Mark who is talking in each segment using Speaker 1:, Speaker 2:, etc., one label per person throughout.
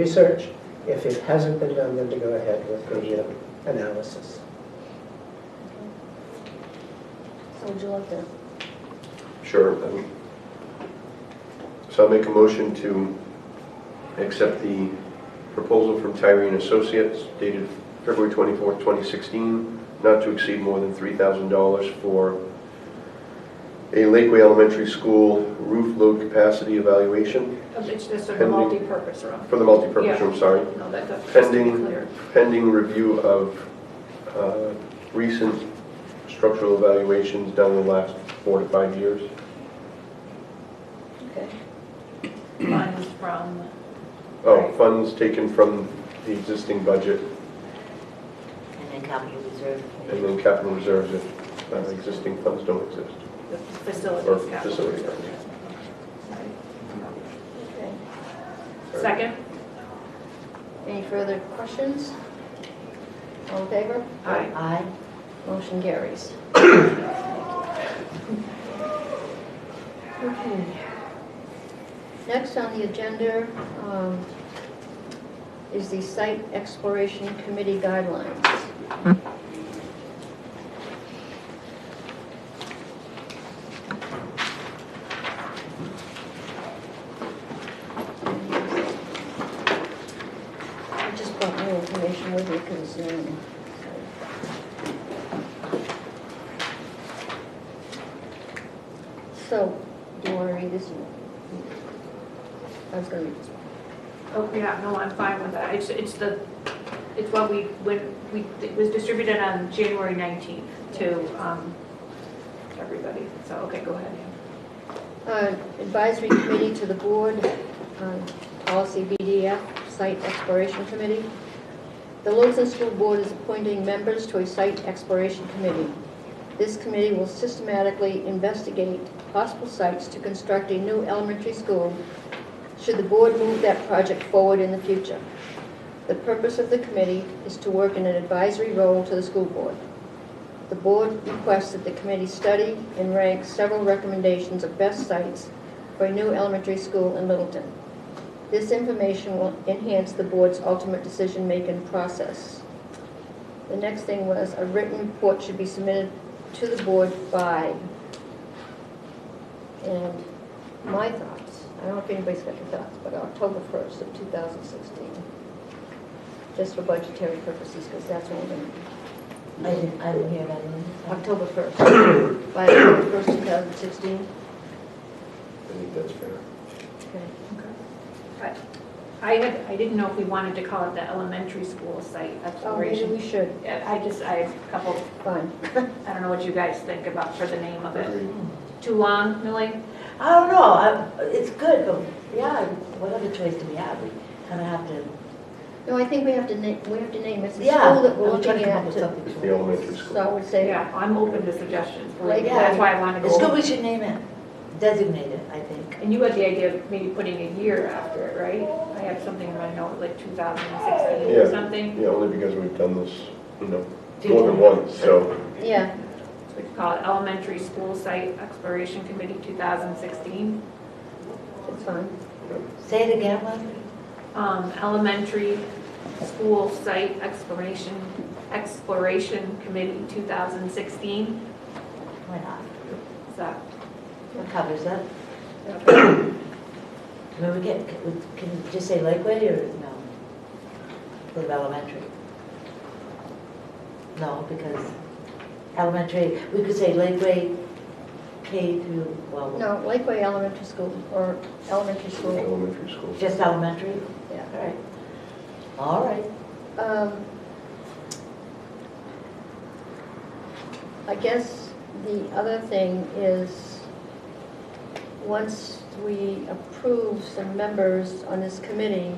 Speaker 1: research. If it hasn't been done, then to go ahead with the um, analysis.
Speaker 2: So would you like to?
Speaker 3: Sure. um, So I'll make a motion to accept the proposal from Tyree Associates dated February 24th, 2016, not to exceed more than $3,000 for a Lakeway Elementary School roof load capacity evaluation
Speaker 4: Of which this is a
Speaker 3: Pending.
Speaker 4: multi-purpose room.
Speaker 3: for the multipurpose room, sorry.
Speaker 4: No, that doesn't, just to be
Speaker 3: Pending.
Speaker 4: clear.
Speaker 3: pending review of uh, recent structural evaluations done in the last four to five years.
Speaker 2: Okay.
Speaker 4: Mine's from,
Speaker 3: Oh, funds taken from the existing budget
Speaker 5: And then capital reserve.
Speaker 3: and then capital reserves if uh, existing funds don't exist. Or
Speaker 4: the facilities capital.
Speaker 3: facility.
Speaker 2: Okay.
Speaker 4: Second?
Speaker 2: Any further questions? All in favor?
Speaker 4: Aye.
Speaker 5: Aye.
Speaker 2: Motion carries. Okay. Next on the agenda um, is the Site Exploration Committee Guidelines. I just brought more information with me because, um, so, do you want to read this? I was going to read this.
Speaker 4: Oh, yeah, no, I'm fine with that. It's, it's the, it's what we, when, we, it was distributed on January 19th to um, everybody. So, okay, go ahead.
Speaker 2: Uh, Advisory Committee to the Board, uh, Policy BDF, Site Exploration Committee. The Littleton School Board is appointing members to a Site Exploration Committee. This committee will systematically investigate possible sites to construct a new elementary school should the board move that project forward in the future. The purpose of the committee is to work in an advisory role to the school board. The board requests that the committee study and rank several recommendations of best sites for a new elementary school in Littleton. This information will enhance the board's ultimate decision-making process. The next thing was, a written report should be submitted to the board by, and my thoughts, I don't know if anybody's got your thoughts, but October 1st of 2016, just for budgetary purposes, because that's when we're going to
Speaker 5: I didn't, I didn't hear that one.
Speaker 2: October 1st, by October 1st, 2016.
Speaker 3: I think that's fair.
Speaker 2: Okay.
Speaker 4: But I had, I didn't know if we wanted to call it the elementary school site
Speaker 2: Oh, maybe
Speaker 4: exploration.
Speaker 2: we should,
Speaker 4: I I just, I have a couple,
Speaker 2: fine.
Speaker 4: I don't know what you guys think about for the name of it.
Speaker 3: Agreed.
Speaker 4: Too long, Millie?
Speaker 5: I don't know, I, it's good, but yeah, what other choice do we have? We kind of have to,
Speaker 2: No, I think we have to name, we have to name, it's the
Speaker 5: yeah.
Speaker 2: school that we're
Speaker 5: I'm trying
Speaker 2: looking
Speaker 5: to come up
Speaker 2: at.
Speaker 5: with
Speaker 2: to-
Speaker 5: something.
Speaker 3: It's the elementary school.
Speaker 2: So I would say,
Speaker 4: Yeah, I'm open to suggestions, believe
Speaker 2: Like,
Speaker 4: me. that's why I wanted to
Speaker 5: It's good,
Speaker 4: go.
Speaker 5: we should name it, designate it, I think.
Speaker 4: And you had the idea of maybe putting a year after it, right? I have something in my note, like 2016
Speaker 3: Yeah.
Speaker 4: or something.
Speaker 3: Yeah, only because we've done this, you know, more than once, so
Speaker 2: yeah,
Speaker 4: So We could call it Elementary School Site Exploration Committee 2016.
Speaker 2: it's fine.
Speaker 5: Say it again, Leslie.
Speaker 4: Um, Elementary School Site Exploration, Exploration Committee 2016.
Speaker 5: Why not?
Speaker 4: Is that,
Speaker 5: What covers that?
Speaker 4: okay.
Speaker 5: Can we get, can we- can we just say Lakeway or no? What about elementary? No, because elementary, we could say Lakeway K through, well,
Speaker 2: No, Lakeway Elementary School, or elementary school,
Speaker 3: elementary school.
Speaker 5: just elementary?
Speaker 2: yeah.
Speaker 5: All right. All right.
Speaker 2: Um, I guess the other thing is, once we approve some members on this committee,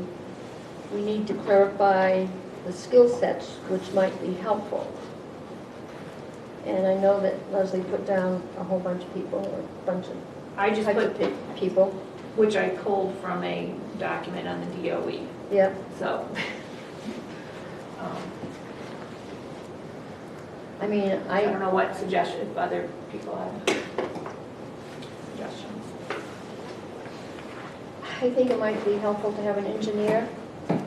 Speaker 2: we need to clarify the skill sets which might be helpful. And I know that Leslie put down a whole bunch of people, or a bunch of
Speaker 4: I just
Speaker 2: types
Speaker 4: put,
Speaker 2: of pe- people.
Speaker 4: which I pulled from a document on the DOE.
Speaker 2: Yep,
Speaker 4: So, um,
Speaker 2: I mean, I,
Speaker 4: I don't know what suggestions, if other people have suggestions.
Speaker 2: I think it might be helpful to have an engineer